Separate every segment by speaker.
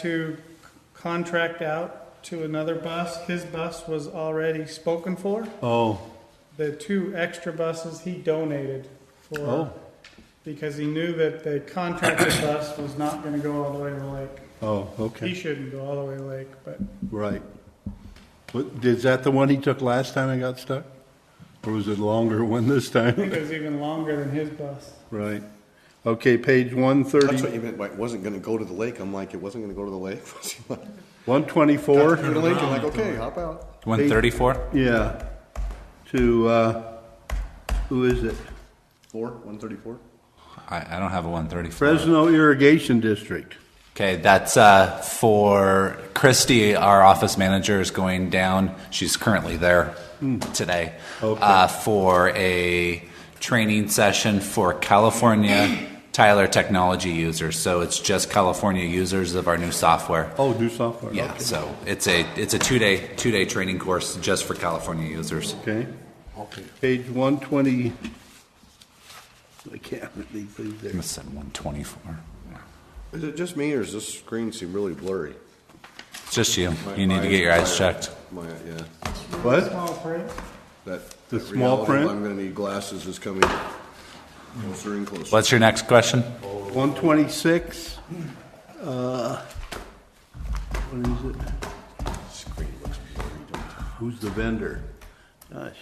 Speaker 1: to contract out to another bus. His bus was already spoken for.
Speaker 2: Oh,
Speaker 1: The two extra buses he donated for,
Speaker 2: Oh.
Speaker 1: because he knew that the contracted bus was not gonna go all the way to the lake.
Speaker 2: oh,
Speaker 1: He
Speaker 2: okay,
Speaker 1: shouldn't go all the way to the lake, but
Speaker 2: right. But is that the one he took last time I got stuck? Or was it longer one this
Speaker 1: I think
Speaker 2: time?
Speaker 1: it was even longer than his bus.
Speaker 2: Right. Okay, page one
Speaker 3: That's what
Speaker 2: thirty,
Speaker 3: you meant by it wasn't gonna go to the lake. I'm like, it wasn't gonna go to the lake? Was he like,
Speaker 2: one twenty-four?
Speaker 3: Go to the lake? I'm like, okay, hop out.
Speaker 4: 134?
Speaker 2: Yeah, to, uh, who is it?
Speaker 3: Four, one thirty-four?
Speaker 4: I, I don't have a 134.
Speaker 2: Fresno Irrigation District.
Speaker 4: Okay, that's uh, for Christy, our office manager is going down. She's currently there today
Speaker 2: Hmm. Okay.
Speaker 4: uh, for a training session for California Tyler technology users. So it's just California users of our new software.
Speaker 2: Oh, new software.
Speaker 4: Yeah,
Speaker 2: okay.
Speaker 4: so it's a it's a two day two day training course just for California users.
Speaker 2: Okay. Page one twenty. I can't read these
Speaker 4: I'm gonna
Speaker 2: there.
Speaker 4: send 124.
Speaker 3: Is it just me or does this screen seem really blurry?
Speaker 4: It's just you.
Speaker 3: My
Speaker 4: You need to get your eyes
Speaker 3: are-
Speaker 4: checked.
Speaker 3: My, yeah,
Speaker 2: What?
Speaker 1: Small print.
Speaker 3: that.
Speaker 2: The
Speaker 3: that
Speaker 2: small
Speaker 3: reality
Speaker 2: print?
Speaker 3: I'm gonna need glasses is coming closer and closer.
Speaker 4: What's your next question?
Speaker 2: One twenty-six? uh, What is it?
Speaker 3: Screen looks blurry, don't it?
Speaker 2: Who's the vendor? Gosh.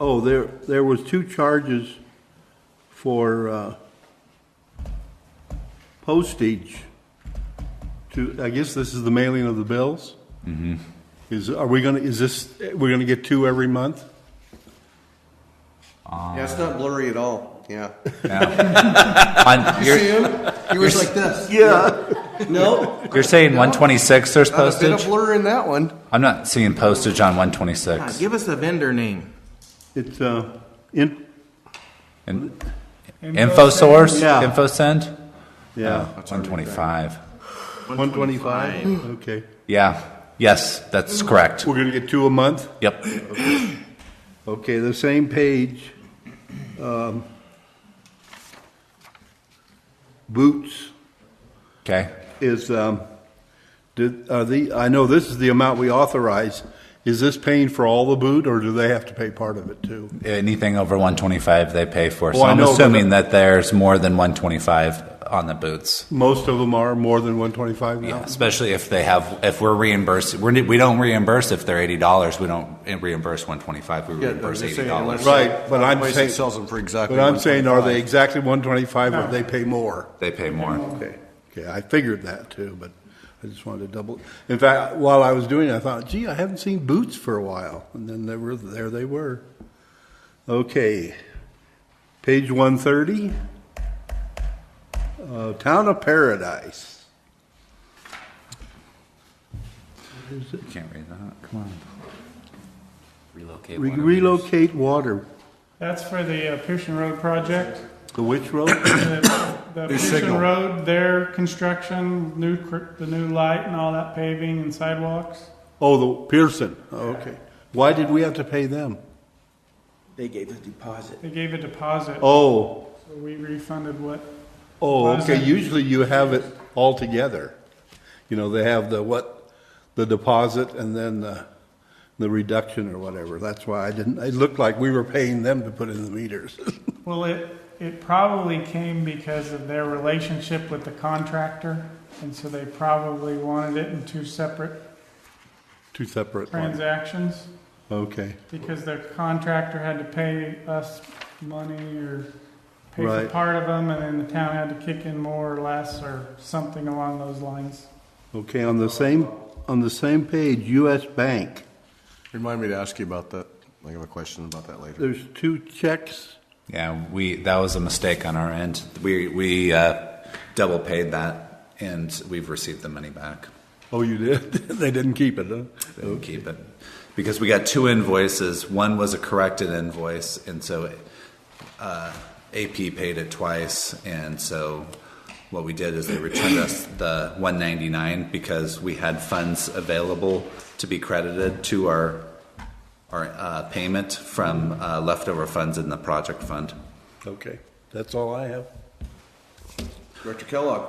Speaker 2: Oh, there, there was two charges for uh, postage to, I guess this is the mailing of the bills? Mm-hmm. Is, are we gonna, is this, we're gonna get two every month?
Speaker 3: Yeah, it's not blurry at all, yeah.
Speaker 4: On,
Speaker 3: You
Speaker 4: you're,
Speaker 3: see him? He was like this.
Speaker 2: Yeah.
Speaker 3: No,
Speaker 4: you're saying 126 there's
Speaker 3: not a bit of
Speaker 4: postage?
Speaker 3: blur in that one.
Speaker 4: I'm not seeing postage on
Speaker 5: Ah,
Speaker 4: 126.
Speaker 5: give us the vendor name.
Speaker 2: It's, uh, in,
Speaker 4: In- Info source?
Speaker 2: Yeah.
Speaker 4: Info send?
Speaker 2: yeah,
Speaker 4: 125.
Speaker 2: 125? Okay.
Speaker 4: Yeah. Yes, that's correct.
Speaker 2: We're gonna get two a month?
Speaker 4: Yep.
Speaker 2: Okay, the same page. um, Boots
Speaker 4: Okay.
Speaker 2: is, um, did, are the, I know this is the amount we authorize. Is this paying for all the boot, or do they have to pay part of it too?
Speaker 4: Anything over 125 they pay for. So
Speaker 2: Well, Oh, I
Speaker 4: I'm
Speaker 2: know, but-
Speaker 4: assuming that there's more than 125 on the boots.
Speaker 2: Most of them are more than one twenty-five now?
Speaker 4: Yeah, especially if they have, if we're reimbursed, we're, we don't reimburse if they're eighty dollars, we don't reimburse one twenty-five, we
Speaker 3: Yeah, I'm
Speaker 4: reimburse
Speaker 3: just
Speaker 4: eighty
Speaker 3: saying, unless-
Speaker 4: dollars.
Speaker 2: Right, but I'm
Speaker 3: Otherwise it
Speaker 2: saying-
Speaker 3: Sells them for exactly.
Speaker 2: But I'm saying, are they
Speaker 3: 125.
Speaker 2: exactly one twenty-five, or they pay more?
Speaker 4: They pay more.
Speaker 2: Okay, okay, I figured that too, but I just wanted to double. In fact, while I was doing it, I thought, gee, I haven't seen boots for a while, and then there were, there they were. Okay, page one thirty. Uh, Town of Paradise.
Speaker 4: You Can't read that, come on. Relocate.
Speaker 2: Re-
Speaker 4: water
Speaker 2: Relocate water.
Speaker 1: That's for the uh, Pearson Road project.
Speaker 2: The which road?
Speaker 1: The the Pearson
Speaker 3: signal.
Speaker 1: Road, their construction, new, cr- the new light and all that paving and sidewalks.
Speaker 2: Oh, the Pearson. Oh, okay. Why did we have to pay them?
Speaker 5: They gave a deposit.
Speaker 1: They gave a deposit, so
Speaker 2: Oh,
Speaker 1: we refunded what,
Speaker 2: oh,
Speaker 1: Why is
Speaker 2: okay.
Speaker 1: that?
Speaker 2: Usually you have it all together. You know, they have the what, the deposit and then the, the reduction or whatever. That's why I didn't, it looked like we were paying them to put in the meters.
Speaker 1: well, it, it probably came because of their relationship with the contractor, and so they probably wanted it in two separate
Speaker 2: Two separate ones.
Speaker 1: transactions,
Speaker 2: Okay,
Speaker 1: because the contractor had to pay us money or pay for
Speaker 2: Right.
Speaker 1: part of them, and then the town had to kick in more or less, or something along those lines.
Speaker 2: okay. On the same, on the same page, US Bank,
Speaker 3: Remind me to ask you about that. I have a question about that later.
Speaker 2: there's two checks.
Speaker 4: Yeah, we, that was a mistake on our end. We, we, uh, double paid that and we've received the money back.
Speaker 2: Oh, you did? They didn't keep it, huh?
Speaker 4: Didn't keep it. Because we got two invoices, one was a corrected invoice and so, uh, AP paid it twice and so what we did is they returned us the one ninety-nine because we had funds available to be credited to our, our, uh, payment from, uh, leftover funds in the project fund.
Speaker 2: Okay, that's all I have.
Speaker 3: Director Kellogg.